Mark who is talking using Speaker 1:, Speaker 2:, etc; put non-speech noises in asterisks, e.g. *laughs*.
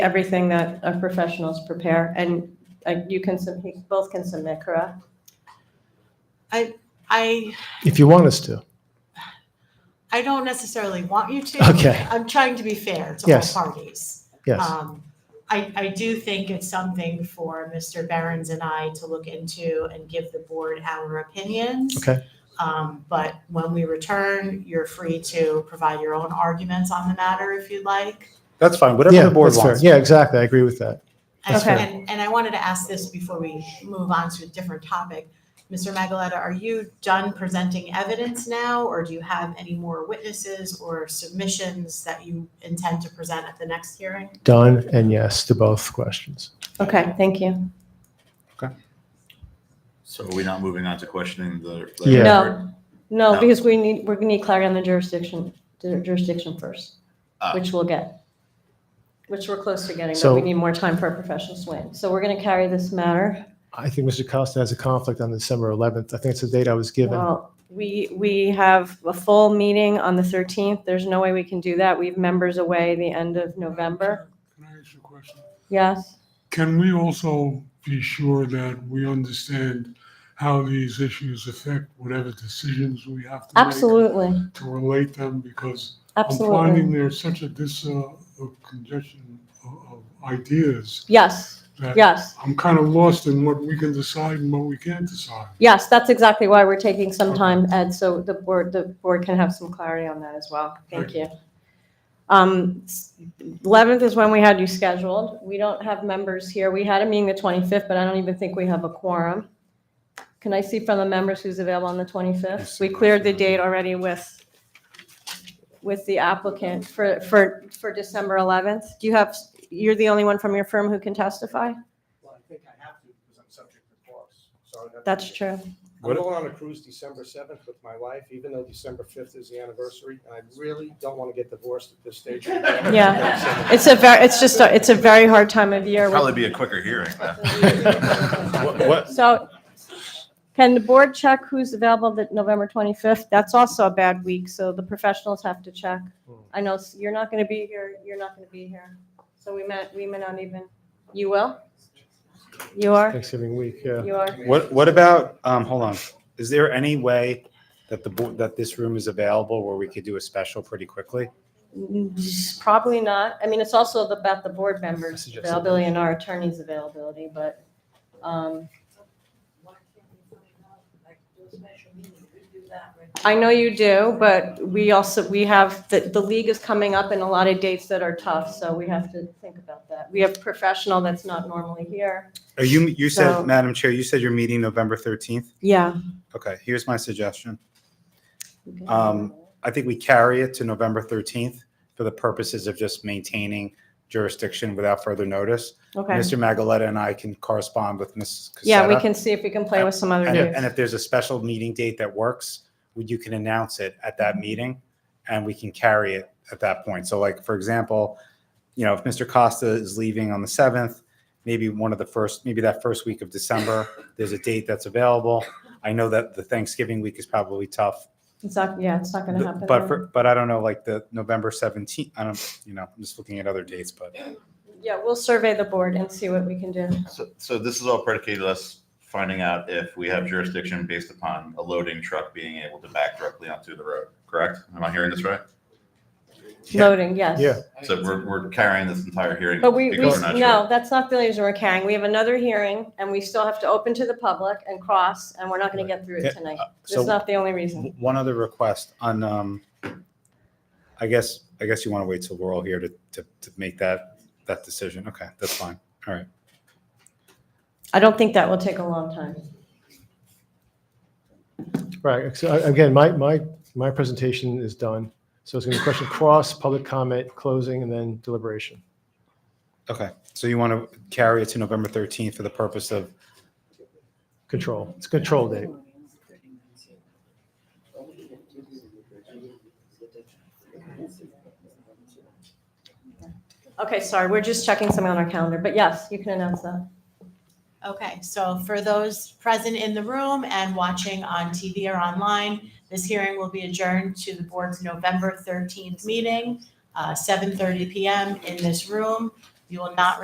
Speaker 1: everything that our professionals prepare, and uh, you can, sub- you both can submit, correct?
Speaker 2: I,
Speaker 3: If you want us to.
Speaker 2: I don't necessarily want you to.
Speaker 3: Okay.
Speaker 2: I'm trying to be fair to all
Speaker 3: Yes.
Speaker 2: parties.
Speaker 3: Yes.
Speaker 2: Um, I, I do think it's something for Mr. Behrens and I to look into and give the board our opinions.
Speaker 3: Okay.
Speaker 2: Um, but when we return, you're free to provide your own arguments on the matter if you'd like.
Speaker 4: That's fine, whatever
Speaker 3: yeah,
Speaker 4: the board
Speaker 3: that's fair.
Speaker 4: wants.
Speaker 3: Yeah, exactly. I agree with that.
Speaker 2: And,
Speaker 1: Okay.
Speaker 2: and, and I wanted to ask this before we move on to a different topic. Mr. Magaleta, are you done presenting evidence now, or do you have any more witnesses or submissions that you intend to present at the next hearing?
Speaker 3: Done and yes to both questions.
Speaker 1: Okay, thank you.
Speaker 5: So are we not moving on to questioning the? the
Speaker 3: Yeah.
Speaker 1: No, no,
Speaker 5: No.
Speaker 1: because we need, we're gonna need clarity on the jurisdiction, the jurisdiction first,
Speaker 5: Ah.
Speaker 1: which we'll get, which we're close to getting, but
Speaker 3: So-
Speaker 1: we need more time for our professionals to win. So we're gonna carry this matter.
Speaker 3: I think Mr. Costa has a conflict on December 11th. I think it's the date I was given.
Speaker 1: Well, we, we have a full meeting on the 13th. There's no way we can do that. We have members away the end of November.
Speaker 6: Can I ask you a question?
Speaker 1: Yes?
Speaker 6: Can we also be sure that we understand how these issues affect whatever decisions we have to make?
Speaker 1: Absolutely,
Speaker 6: To relate them, because I'm
Speaker 1: absolutely.
Speaker 6: finding there's such a dis, uh, a congestion of, of ideas
Speaker 1: Yes,
Speaker 6: that
Speaker 1: yes,
Speaker 6: I'm kind of lost in what we can decide and what we can't decide.
Speaker 1: yes. That's exactly why we're taking some time, Ed, so the board, the board can have some clarity on that as well. Thank you. Um, s- 11th is when we had you scheduled. We don't have members here. We had a meeting the 25th, but I don't even think we have a quorum. Can I see from the members who's available on the 25th? We cleared the date already with, with the applicant for, for, for December 11th. Do you have, you're the only one from your firm who can testify?
Speaker 7: Well, I think I have to because I'm subject to loss. So I'd have to-
Speaker 1: That's true.
Speaker 7: I'm going on a cruise December seventh with my wife, even though December fifth is the anniversary. And I really don't want to get divorced at this
Speaker 1: *laughs*
Speaker 7: stage. *laughs*
Speaker 1: Yeah.
Speaker 5: *laughs*
Speaker 1: It's a very, it's just, a- it's a very hard time of year.
Speaker 5: Probably be a quicker hearing.
Speaker 4: What, what-
Speaker 1: So can the board check who's available the November 25th? That's also a bad week, so the professionals have to check. I know s- you're not going to be here, you're not going to be here. So we might, we may not even, you will? You are?
Speaker 3: *laughs* Thanksgiving week, yeah.
Speaker 1: You are?
Speaker 4: what, what about, um, hold on, is there any way that the board, that this room is available where we could do a special pretty quickly?
Speaker 1: Mm, Probably not. I mean, it's also about the board members'
Speaker 3: Suggested.
Speaker 1: availability and our attorney's availability, but, um, I know you do, but we also, we have, the, the league is coming up in a lot of dates that are tough, so we have to think about that. We have professional that's not normally here.
Speaker 4: Are you, you
Speaker 1: So-
Speaker 4: said, Madam Chair, you said you're meeting November thirteenth?
Speaker 1: Yeah.
Speaker 4: Okay, here's my suggestion. Um, I think we carry it to November thirteenth for the purposes of just maintaining jurisdiction without further notice.
Speaker 1: Okay.
Speaker 4: Mr. Magaleta and I can correspond with Mrs. Casetta.
Speaker 1: Yeah, we can see if we can play with some other
Speaker 4: And
Speaker 1: dates.
Speaker 4: if, and if there's a special meeting date that works, we- you can announce it at that
Speaker 1: Mm-hmm.
Speaker 4: meeting and we can carry it at that point. So like, for example, you know, if Mr. Costa is leaving on the seventh, maybe one of the first, maybe that first week of December, there's a date that's available. I know that the Thanksgiving week is probably tough,
Speaker 1: It's not, yeah, it's not gonna happen.
Speaker 4: but
Speaker 1: then.
Speaker 4: for, but I don't know, like the November seventeenth, I don't, you know, I'm just looking at other dates, but
Speaker 1: Yeah, we'll survey the board and see what we can do.
Speaker 5: So, so this is all predicated us finding out if we have jurisdiction based upon a loading truck being able to back directly onto the road, correct? Am I hearing this right?
Speaker 4: Yeah.
Speaker 1: Loading, yes.
Speaker 3: Yeah.
Speaker 5: So we're, we're carrying this entire hearing.
Speaker 1: But we, we,
Speaker 5: because we're not
Speaker 1: no,
Speaker 5: sure.
Speaker 1: that's not the reason we're carrying. We have another hearing and we still have to open to the public and cross, and we're not gonna get through it
Speaker 4: Yeah, uh,
Speaker 1: tonight. That's
Speaker 4: so
Speaker 1: not the only reason.
Speaker 4: w- one other request on, um, I guess, I guess you want to wait till we're all here to, to, to make that, that decision. Okay, that's fine. All right.
Speaker 1: I don't think that will take a long time.
Speaker 3: Right. So uh, again, my, my, my presentation is done. So it's going to be question cross, public comment, closing, and then deliberation.
Speaker 4: Okay. So you want to carry it to November 13th for the purpose of,
Speaker 3: Control. It's a control date.
Speaker 1: Okay, sorry, we're just checking something on our calendar, but yes, you can announce that.
Speaker 2: Okay, so for those present in the room and watching on TV or online, this hearing will be adjourned to the board's November 13th meeting, uh, 7:30 PM in this room. You will not